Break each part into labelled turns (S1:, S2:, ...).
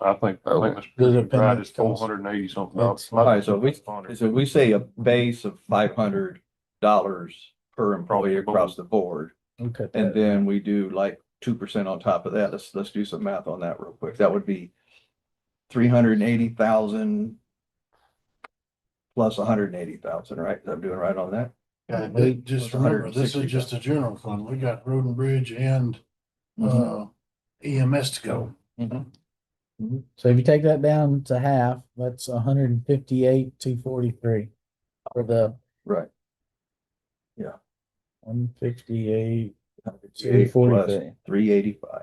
S1: I think, I think
S2: Does it
S1: Mr. Pride is
S2: depend on-
S1: four hundred and eighty something. dollars.
S3: All right, so we, so we say a base of five hundred dollars per employee across the board.
S2: Okay.
S3: And then we do like two percent on top of that. Let's, let's do some math on that real quick. That would be three hundred and eighty thousand plus hundred and eighty thousand, right? I'm doing right on that?
S2: Yeah, but uh, just
S3: It's
S2: remember, this is
S3: 160,000.
S2: just a general fund. We got road and bridge and,
S4: Mm-hmm.
S2: uh, EMS to go.
S4: So if you take that down to half, that's hundred and fifty-eight, two forty-three for the.
S3: Right.
S4: One fifty-eight, two
S3: Eight plus
S4: forty-three,
S3: three eighty-five.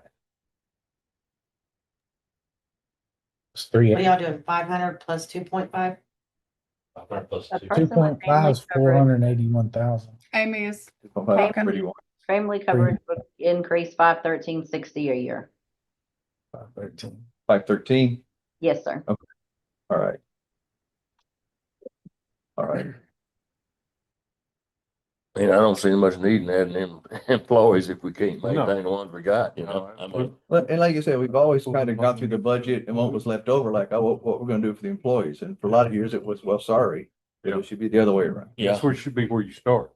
S4: it's three,
S5: What are y'all doing? Five hundred plus two point five?
S4: two point five is four hundred and eighty-one thousand.
S6: Amy is Okay.
S3: Pretty one,
S7: Family coverage would increase five thirteen sixty a year.
S4: Five thirteen.
S3: five thirteen,
S7: Yes, sir.
S3: all right. All right,
S8: You know, I don't see much need in adding them employees if we can't
S1: No.
S8: maintain the ones we got, you know?
S1: No,
S8: I mean,
S3: Well, and like you said, we've always kind of gone through the budget and what was left over, like, oh, what, what we're gonna do for the employees, and for a lot of years it was, well, sorry.
S1: Yeah.
S3: It should be the other way around.
S8: Yeah,
S1: That's where it should be where you start.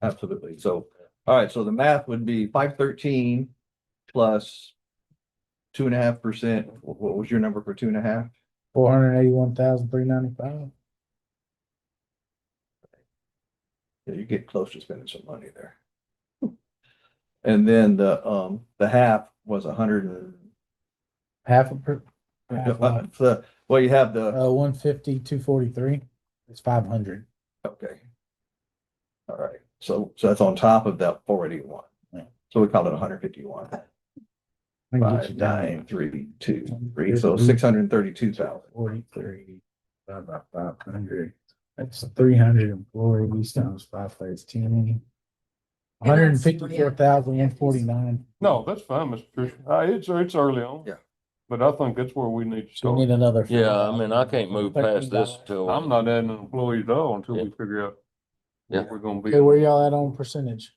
S3: Absolutely. So, all right, so the math would be five thirteen plus two and a half percent. What was your number for two and a half?
S4: Four hundred eighty-one thousand three ninety-five.
S3: Yeah, you get close to spending some money there. And then the, um, the half was a hundred and, uh,
S4: Half a per, Half what?
S3: the, well, you have the,
S4: uh, one fifty, two forty-three, it's five hundred.
S3: okay. All right, so, so that's on top of that four eighty-one.
S4: Yeah.
S3: So we call it hundred fifty-one.
S4: I can get you
S3: Five,
S4: down.
S3: nine, three, two, three, so six hundred and thirty-two thousand.
S4: Forty-three, divided by five hundred, that's three hundred employees times five thirteen.
S5: And
S4: Hundred and
S5: that's-
S4: fifty-four thousand, one forty-nine,
S1: No, that's fine, Mr. Christian. Uh, it's, it's early on.
S3: Yeah.
S1: But I think that's where we need to
S4: so we
S1: start.
S4: need another.
S8: yeah, I mean, I can't move past this
S4: $13.
S8: till.
S1: I'm not adding an employee at all until we figure out
S8: Yeah.
S1: what we're gonna be.
S4: Okay, where y'all at on percentage?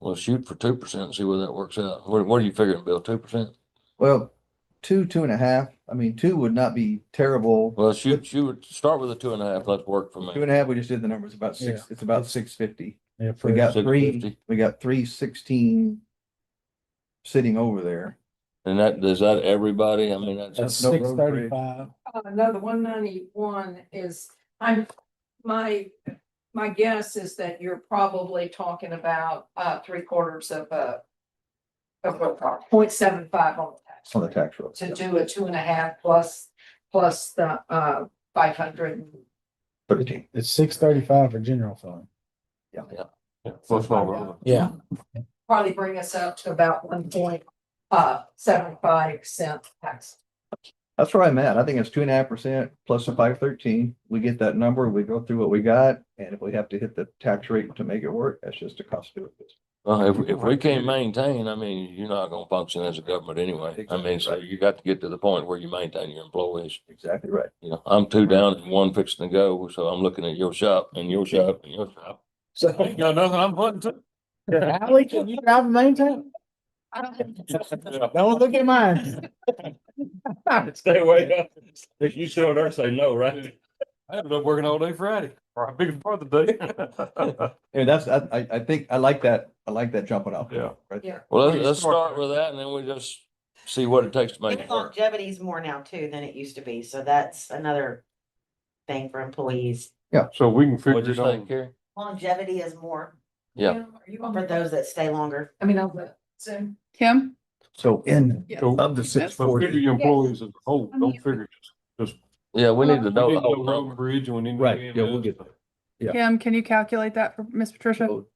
S8: Well, shoot for two percent and see where that works out. What, what are you figuring, Bill? Two percent?
S3: Well, two, two and a half, I mean, two would not be terrible.
S8: Well, shoot, shoot, start with a two and a half. Let's work for
S3: Two
S8: me.
S3: and a half, we just did the numbers, about six, it's about six fifty.
S4: Yeah,
S3: We got three,
S8: 650.
S3: we got three sixteen sitting over there.
S8: And that, does that everybody? I mean,
S4: That's
S8: that's,
S3: no road
S4: six thirty-five,
S9: Uh, no, the one ninety-one is, I'm, my, my guess is that you're probably talking about, uh, three quarters of a. Of a point seven five on the
S3: On the
S9: tax.
S3: tax roll.
S9: To do a two and a half plus, plus the, uh, five hundred.
S3: Thirteen.
S4: it's six thirty-five for general fund.
S1: Yeah, Plus all the other.
S4: Yeah.
S9: Probably bring us up to about one point, uh, seven five cent tax.
S3: That's where I'm at. I think it's two and a half percent plus the five thirteen. We get that number, we go through what we got, and if we have to hit the tax rate to make it work, that's just the cost of doing business.
S8: well, if, if we can't maintain, I mean, you're not gonna function as a government anyway. I mean, so
S3: Exactly.
S8: you got to get to the point where you maintain your employees.
S3: Exactly right.
S8: You know, I'm two down and one fixing to go, so I'm looking at your shop and your shop and your shop.
S4: So,
S8: Ain't got nothing I'm putting to.
S4: Ally, can you drive a maintain?
S6: I don't think
S4: Don't look at mine.
S8: Stay away. up. If you showed her, say no, right?
S1: I ended up working all day Friday, or a big part of the day.
S3: And that's, I, I, I think, I like that, I like that jumping off.
S1: Yeah.
S3: Right
S9: Yeah.
S3: there.
S8: Well,
S1: We
S8: let's, let's
S1: start
S8: start
S1: there.
S8: with that and then we just see what it takes to make it
S5: Its
S8: work.
S5: longevity is more now too than it used to be, so that's another thing for employees.
S1: So we can figure
S8: What'd you
S1: it
S8: think,
S1: out.
S8: Carrie?
S5: Longevity is more
S8: Yeah.
S9: Are you on
S5: for
S9: the,
S5: those that stay longer.
S9: I mean, on the Zoom?
S6: Kim?
S3: So in,
S6: Yeah.
S1: So-
S3: of the six
S1: So
S3: forty.
S1: figure your employees as a whole, don't figure.
S8: Yeah, we need to
S1: We
S8: know.
S1: need
S8: the
S1: to
S8: whole
S1: go road
S8: number.
S1: and bridge and we need. to
S3: Right,
S1: do
S3: yeah, we'll
S1: EMS.
S3: get there. Yeah.
S6: Kim, can you calculate that for Miss Patricia?
S3: Oh,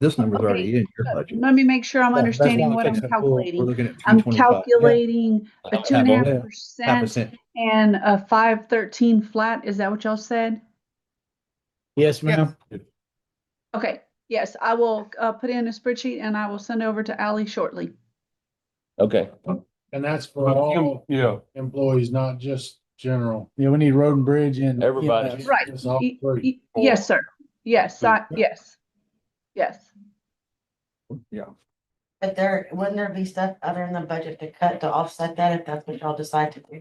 S3: This number's already in your budget.
S10: Let me make sure I'm
S4: Yeah, that's
S10: understanding
S4: why I
S10: what
S4: think
S10: I'm
S4: so.
S3: We're
S10: calculating.
S3: looking at
S10: I'm
S3: 325.
S10: calculating a
S8: How
S10: two and a
S3: half
S10: half
S3: percent. Half
S10: percent
S3: percent.
S10: and a five thirteen flat. Is that what y'all said?
S4: Yes, ma'am.
S10: Okay, yes, I will uh put in a spreadsheet and I will send over to Ally shortly.
S8: Okay,
S2: And that's for
S1: But Kim-
S2: all
S1: Yeah,
S2: employees, not just general.
S4: Yeah, we need road and bridge and. E
S8: Everybody.
S4: EMS.
S10: Right.
S2: It's all
S10: Y-
S2: three.
S10: y- Yes, sir. Yes, I, yes. Yes.
S5: But there, wouldn't there be stuff other in the budget to cut to offset that if that's what y'all decide to do?